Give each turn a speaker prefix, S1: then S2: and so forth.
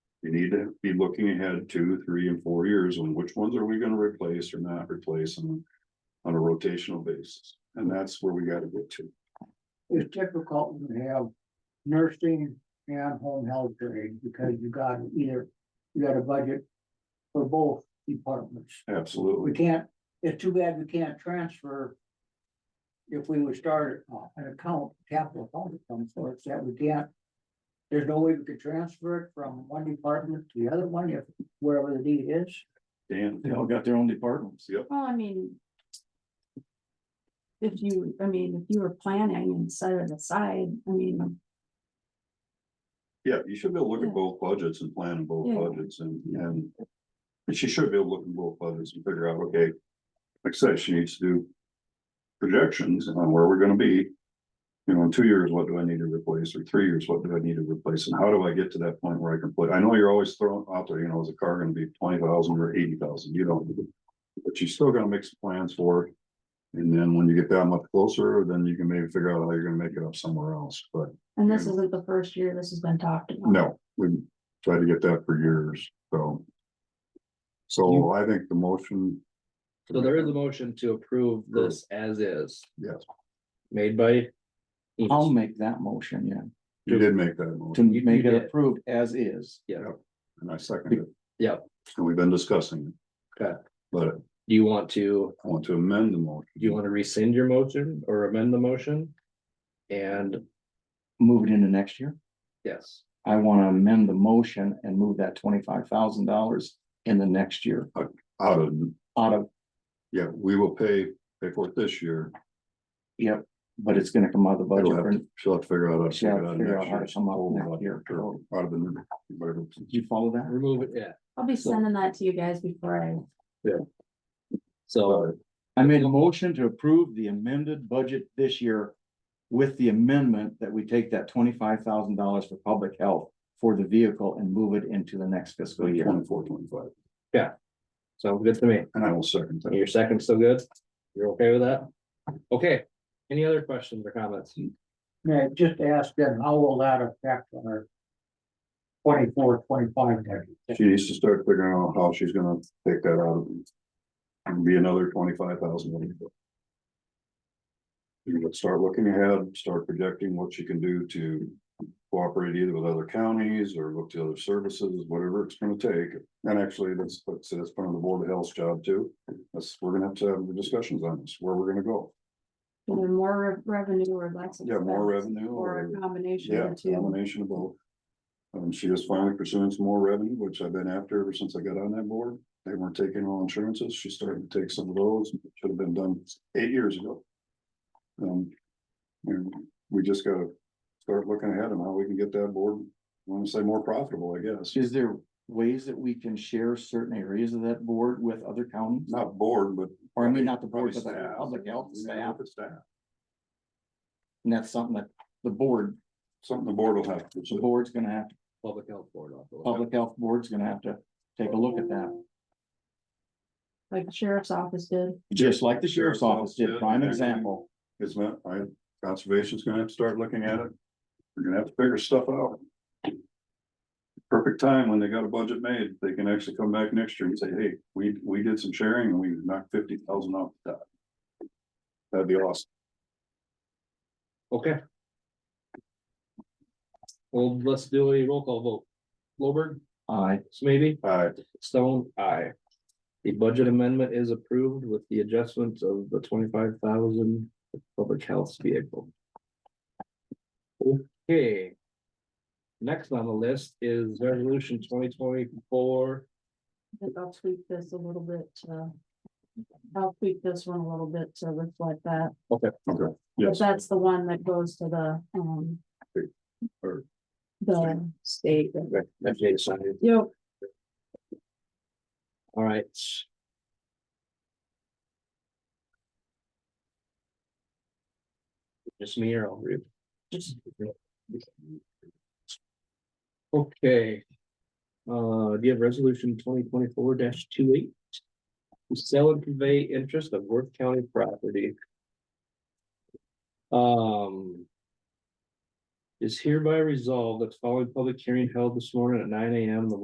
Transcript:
S1: You need to be looking ahead two, three and four years on which ones are we gonna replace or not replace on. On a rotational basis, and that's where we gotta get to.
S2: It's difficult when you have nursing and home health aid because you got either, you got a budget for both departments. We
S1: Absolutely.
S2: can't, it's too bad we can't transfer. If we would start uh, an account, capital account of some sort, that we can't. There's no way we could transfer it from one department to the other one, if wherever the need is.
S1: Dan,
S3: They all got their own departments.
S1: yep,
S4: Well, I mean. If you, I mean, if you were planning and set it aside, I mean,
S1: yeah, you should be able to look
S4: Yeah.
S1: at both budgets and plan in both
S4: Yeah.
S1: budgets and, and. And she should be able to look in both budgets and figure out, okay, like I said, she needs to do. Projections on where we're gonna be. You know, in two years, what do I need to replace, or three years, what do I need to replace, and how do I get to that point where I can put, I know you're always throwing out there, you know, is the car gonna be twenty thousand or eighty thousand, you don't. But you still gotta make some plans for it. And then when you get that much closer, then you can maybe figure out how you're gonna make it up somewhere else, but.
S4: and this isn't the first year this has been talked about.
S1: No, we tried to get that for years, so. So I think the motion,
S5: So there is a motion to approve this as is,
S1: yes,
S5: made by.
S3: I'll
S5: Eames.
S3: make that motion, yeah,
S1: you did make that
S3: to
S1: motion,
S5: you
S3: make it
S5: did.
S3: approved as is.
S1: and I seconded it.
S5: Yep.
S1: And we've been discussing. it.
S5: Okay.
S1: But I
S5: Do you want to,
S1: want to amend the motion.
S5: do you want to rescind your motion or amend the motion? And
S3: Move it into next year.
S5: yes,
S3: I wanna amend the motion and move that twenty-five thousand dollars in the next year
S1: Out of,
S3: out of,
S1: yeah, we will pay, pay for it this year,
S3: yep, but it's gonna come out of the budget.
S1: she'll have
S3: for-
S1: to, she'll have to figure out. how to figure it
S3: She'll
S1: out
S3: figure out
S1: next
S3: how to
S1: year's
S3: come up
S1: whole
S3: next
S1: budget
S3: year.
S1: or Out of the, whatever.
S3: Do you follow that?
S5: remove it, yeah,
S4: I'll be sending that to you guys before I,
S5: so
S3: I made a motion to approve the amended budget this year with the amendment that we take that twenty-five thousand dollars for public health for the vehicle and move it into the next fiscal year.
S1: Twenty-four, twenty-five,
S5: sounds good to me.
S1: and I will second that.
S5: Your second's still good? You're okay with that? Okay, any other questions or comments?
S2: Now, just ask them, how will that affect our 24, 25 budget?
S1: She needs to start figuring out how she's gonna take that out of. it. And be another twenty-five thousand. You would start looking ahead, start projecting what she can do to cooperate either with other counties or look to other services, whatever it's gonna take. And actually, that's, that's, that's part of the Board of Health's job too. That's, we're gonna have to have the discussions on this, where we're gonna go.
S4: either more re- revenue or less.
S1: Yeah, more
S4: expense,
S1: revenue
S4: Or
S1: or,
S4: a combination
S1: yeah,
S4: of the two.
S1: combination of both. Um, she is finally pursuing some more revenue, which I've been after ever since I got on that board. They weren't taking all insurances. She started to take some of those. Should have been done eight years ago. Um, and we just gotta start looking ahead and how we can get that board, I wanna say more profitable, I guess.
S3: Is there ways that we can share certain areas of that board with other counties?
S1: Not board, but.
S3: Or I mean, not the board,
S1: probably
S3: but the
S1: staff.
S3: public health staff,
S1: Staff.
S3: and that's something that the board,
S1: Something the board will have to.
S3: the
S1: do.
S3: board's gonna have, to.
S5: Public health board. I'll go with
S3: public health board's gonna have to take a look at that.
S4: Like the sheriff's office did.
S3: Just like the sheriff's office did, prime example.
S1: It's not, I, conservation's gonna have to start looking at it. We're gonna have to figure stuff out. Perfect time when they got a budget made, they can actually come back next year and say, hey, we, we did some sharing and we knocked fifty thousand off the top. That'd be awesome.
S5: that. Okay. Well, let's do a roll call vote. Lowberg,
S3: I,
S5: Smithy?
S1: Uh,
S5: Stone, aye. The budget amendment is approved with the adjustments of the twenty-five thousand public health vehicle. Okay. Next on the list is resolution twenty twenty-four.
S4: I think I'll tweak this a little bit, uh. I'll tweak this one a little bit to reflect that.
S1: okay,
S4: But
S1: yes,
S4: that's the one that goes to the, um.
S1: Or-
S4: The state.
S5: FDA decided.
S4: Yep,
S5: All right. Just me or I'll read. Just. Okay. Uh, do you have resolution twenty twenty-four 28 To sell and convey interest of Worth County property. Um. Is hereby resolved that following public hearing held this morning at nine AM, the